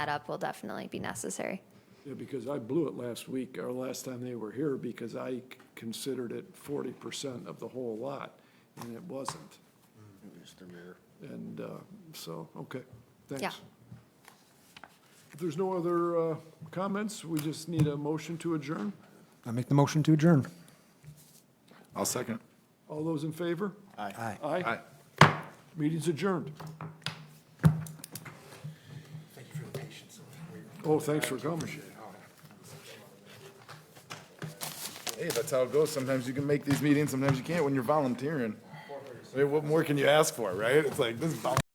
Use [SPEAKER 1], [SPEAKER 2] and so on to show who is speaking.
[SPEAKER 1] that up will definitely be necessary.
[SPEAKER 2] Yeah, because I blew it last week, or last time they were here, because I c- considered it forty percent of the whole lot, and it wasn't. And, uh, so, okay, thanks.
[SPEAKER 1] Yeah.
[SPEAKER 2] If there's no other, uh, comments, we just need a motion to adjourn.
[SPEAKER 3] I make the motion to adjourn.
[SPEAKER 4] I'll second.
[SPEAKER 2] All those in favor?
[SPEAKER 3] Aye.
[SPEAKER 2] Aye. Meeting's adjourned. Oh, thanks for coming.
[SPEAKER 4] Hey, that's how it goes. Sometimes you can make these meetings, sometimes you can't when you're volunteering. I mean, What more can you ask for, right? It's like, this is volunteering.